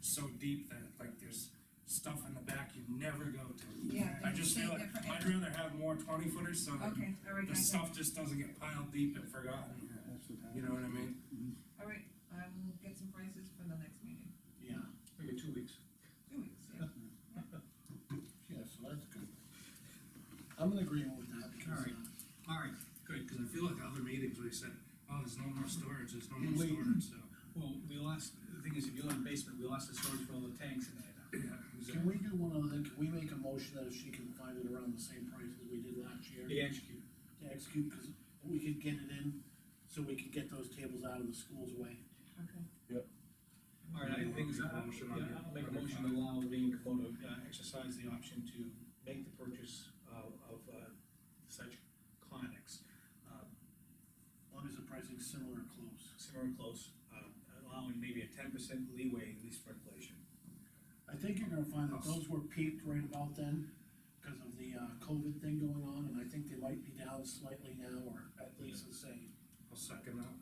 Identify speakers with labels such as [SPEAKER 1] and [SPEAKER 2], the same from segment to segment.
[SPEAKER 1] so deep that like there's stuff in the back you never go to.
[SPEAKER 2] Yeah,
[SPEAKER 1] I
[SPEAKER 2] they
[SPEAKER 1] just
[SPEAKER 2] say
[SPEAKER 1] feel like,
[SPEAKER 2] different-
[SPEAKER 1] I'd rather have more twenty footers so that
[SPEAKER 2] Okay, all right,
[SPEAKER 1] the
[SPEAKER 2] guys,
[SPEAKER 1] stuff just doesn't get piled deep and forgotten, you know what I mean?
[SPEAKER 2] all right, I will get some prices for the next meeting,
[SPEAKER 3] Yeah. Maybe two weeks.
[SPEAKER 2] two weeks, yeah.
[SPEAKER 3] Yeah, so that's good. I'm in agreement with that because,
[SPEAKER 4] Alright.
[SPEAKER 3] uh,
[SPEAKER 4] All right,
[SPEAKER 1] Good, cause I feel like other meetings, we said, oh, there's no more storage, there's no more
[SPEAKER 3] Wait.
[SPEAKER 1] storage, so.
[SPEAKER 4] well, we lost, the thing is, if you live in the basement, we lost the storage for all the tanks in there.
[SPEAKER 1] Yeah,
[SPEAKER 3] can we do one other thing? Can we make a motion that if she can find it around the same price as we did last year?
[SPEAKER 4] The execute.
[SPEAKER 3] To execute, because we could get it in, so we could get those tables out of the school's way.
[SPEAKER 2] Okay.
[SPEAKER 4] All right, I think, it's- I-
[SPEAKER 1] Motion on
[SPEAKER 4] yeah, I'll make a
[SPEAKER 1] your-
[SPEAKER 4] motion to allow Lean Dakota uh, exercise the option to make the purchase of, of uh, such conics. uh,
[SPEAKER 3] As long as the pricing's similar or close.
[SPEAKER 4] Similar and close, uh, allowing maybe a ten percent leeway, at least for inflation.
[SPEAKER 3] I think you're gonna find that those were peaked right about then, because of the, uh, COVID thing going on, and I think they might be down slightly now, or at least the same.
[SPEAKER 1] I'll second that.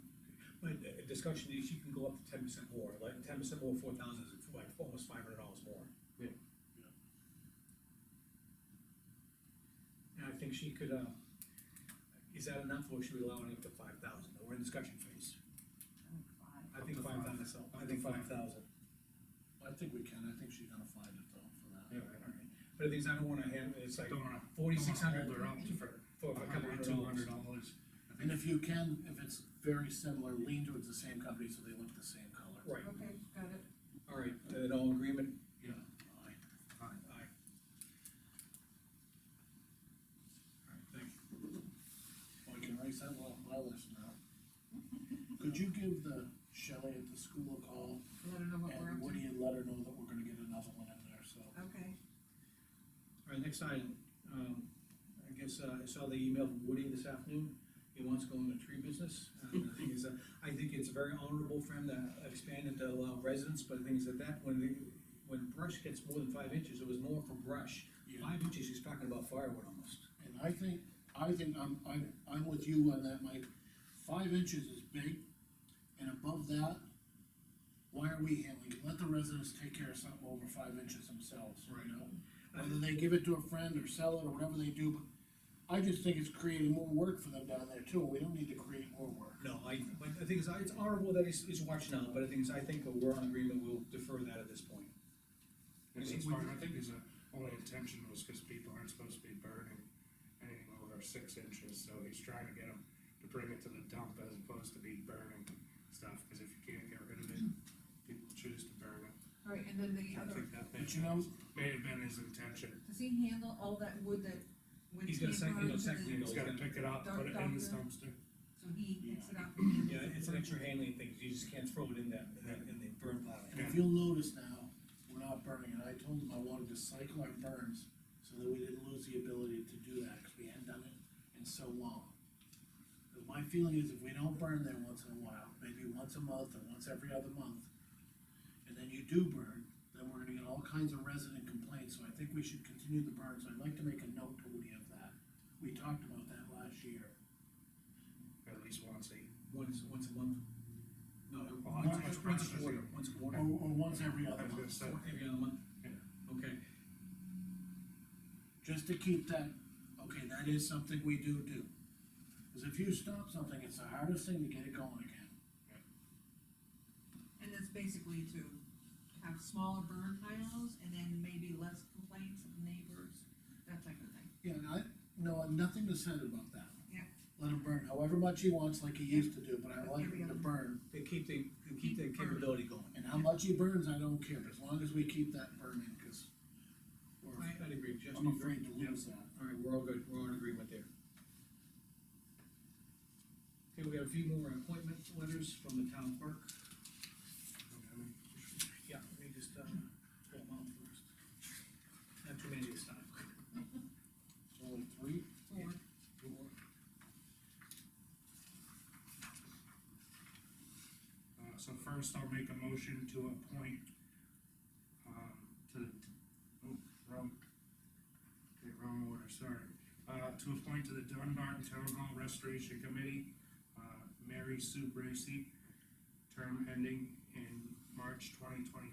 [SPEAKER 4] But uh, a discussion is, you can go up to ten percent more, like ten percent more, four thousand is like almost five hundred dollars more.
[SPEAKER 1] Yeah.
[SPEAKER 4] And I think she could, uh, is that enough, or should we allow it up to five thousand, we're in discussion phase? I
[SPEAKER 1] Up
[SPEAKER 4] think
[SPEAKER 1] to
[SPEAKER 4] five
[SPEAKER 1] five.
[SPEAKER 4] thousand, I
[SPEAKER 1] Up
[SPEAKER 4] think
[SPEAKER 1] to
[SPEAKER 4] five
[SPEAKER 1] five.
[SPEAKER 4] thousand.
[SPEAKER 3] I think we can, I think she's gonna find it though, for that.
[SPEAKER 4] But the thing is, I don't wanna have, it's like
[SPEAKER 1] Don't wanna.
[SPEAKER 4] forty-six hundred
[SPEAKER 1] Hold her up
[SPEAKER 4] for, for a couple hundred
[SPEAKER 1] Two hundred
[SPEAKER 4] dollars.
[SPEAKER 1] dollars. I
[SPEAKER 3] And
[SPEAKER 1] think
[SPEAKER 3] if you can, if it's very similar, lean towards the same company, so they look the same color.
[SPEAKER 4] Right,
[SPEAKER 2] Okay, got it,
[SPEAKER 4] all right, then all agreement,
[SPEAKER 1] Yeah.
[SPEAKER 3] Aye.
[SPEAKER 1] Fine.
[SPEAKER 4] Aye. All right, thank you.
[SPEAKER 3] Well, I can erase that off my list now. Could you give the Shelley at the school a call,
[SPEAKER 2] let her know what we're
[SPEAKER 3] and
[SPEAKER 2] up to,
[SPEAKER 3] Woody and let her know that we're gonna get another one in there, so.
[SPEAKER 2] okay,
[SPEAKER 4] All right, next item, um, I guess, uh, I saw the email from Woody this afternoon, he wants to go into tree business. And the thing is, uh, I think it's very honorable for him to expand it to allow residents, but the thing is that that, when the, when brush gets more than five inches, it was more for brush. Five inches, he's talking about firewood almost.
[SPEAKER 3] And I think, I think I'm, I'm, I'm with you on that, Mike. Five inches is big, and above that, why are we handling it? Let the residents take care of something over five inches themselves, you know? Whether they give it to a friend or sell it or whatever they do, but I just think it's creating more work for them down there too, we don't need to create more work.
[SPEAKER 4] No, I, but the thing is, I- it's honorable that he's, he's watching out, but the thing is, I think we're on agreement, we'll defer that at this point.
[SPEAKER 1] Which is fine, I think his uh, only intention was because people aren't supposed to be burning anything over six inches, so he's trying to get them to bring it to the dump as opposed to be burning stuff, because if you can't get rid of it, people choose to burn it.
[SPEAKER 2] all right, and then the
[SPEAKER 1] I
[SPEAKER 2] other,
[SPEAKER 1] think that may,
[SPEAKER 3] But you know,
[SPEAKER 1] may have been his intention.
[SPEAKER 2] does he handle all that wood that? wood
[SPEAKER 4] He's got a
[SPEAKER 2] can't
[SPEAKER 4] sec-
[SPEAKER 2] go
[SPEAKER 4] he's got
[SPEAKER 1] He's gotta
[SPEAKER 2] into the-
[SPEAKER 4] a second unit.
[SPEAKER 1] pick it up, put it in his dumpster.
[SPEAKER 2] So he picks it up.
[SPEAKER 4] Yeah, it's an extra handling thing, you just can't throw it in that, in that- in the burn pile.
[SPEAKER 3] and if you'll notice now, we're not burning it, I told them I wanted to cycle our burns, so that we didn't lose the ability to do that, cause we hadn't done it in so long. 'Cause my feeling is if we don't burn there once in a while, maybe once a month or once every other month, and then you do burn, then we're gonna get all kinds of resident complaints, so I think we should continue the burn, so I'd like to make a note to Woody of that. We talked about that last year.
[SPEAKER 1] At least once a,
[SPEAKER 4] Once, once a month? No,
[SPEAKER 1] Well,
[SPEAKER 4] once,
[SPEAKER 1] that's much
[SPEAKER 4] once a
[SPEAKER 1] pressure.
[SPEAKER 4] quarter, once a quarter,
[SPEAKER 3] Or, or once every other
[SPEAKER 1] I was
[SPEAKER 3] month.
[SPEAKER 1] gonna say,
[SPEAKER 4] every other month?
[SPEAKER 1] Yeah.
[SPEAKER 4] Okay,
[SPEAKER 3] just to keep that, okay, that is something we do do. Cause if you stop something, it's the hardest thing to get it going again.
[SPEAKER 2] And it's basically to have smaller burn piles and then maybe less complaints of neighbors, that type of thing.
[SPEAKER 3] Yeah, and I, no, I've nothing to say about that.
[SPEAKER 2] Yeah.
[SPEAKER 3] Let him burn however much he wants, like he used to do, but I like him to burn,
[SPEAKER 4] they keep the, they keep the
[SPEAKER 2] Keep burning.
[SPEAKER 4] capability going.
[SPEAKER 3] and how much he burns, I don't care, as long as we keep that burning, cause we're,
[SPEAKER 4] I, I'd agree, Justin.
[SPEAKER 3] I'm afraid to lose that.
[SPEAKER 4] All right, we're all good, we're all in agreement there. Okay, we have a few more appointment letters from the town clerk. Yeah, they just, uh, pull them out first. Not too many this time.
[SPEAKER 3] Only three,
[SPEAKER 2] Or
[SPEAKER 3] four,
[SPEAKER 1] Uh, so first I'll make a motion to appoint, um, to, oh, wrong. Okay, wrong order, sorry. Uh, to appoint to the Dunbar Town Hall Restoration Committee, uh, Mary Sue Bracy, term ending in March twenty twenty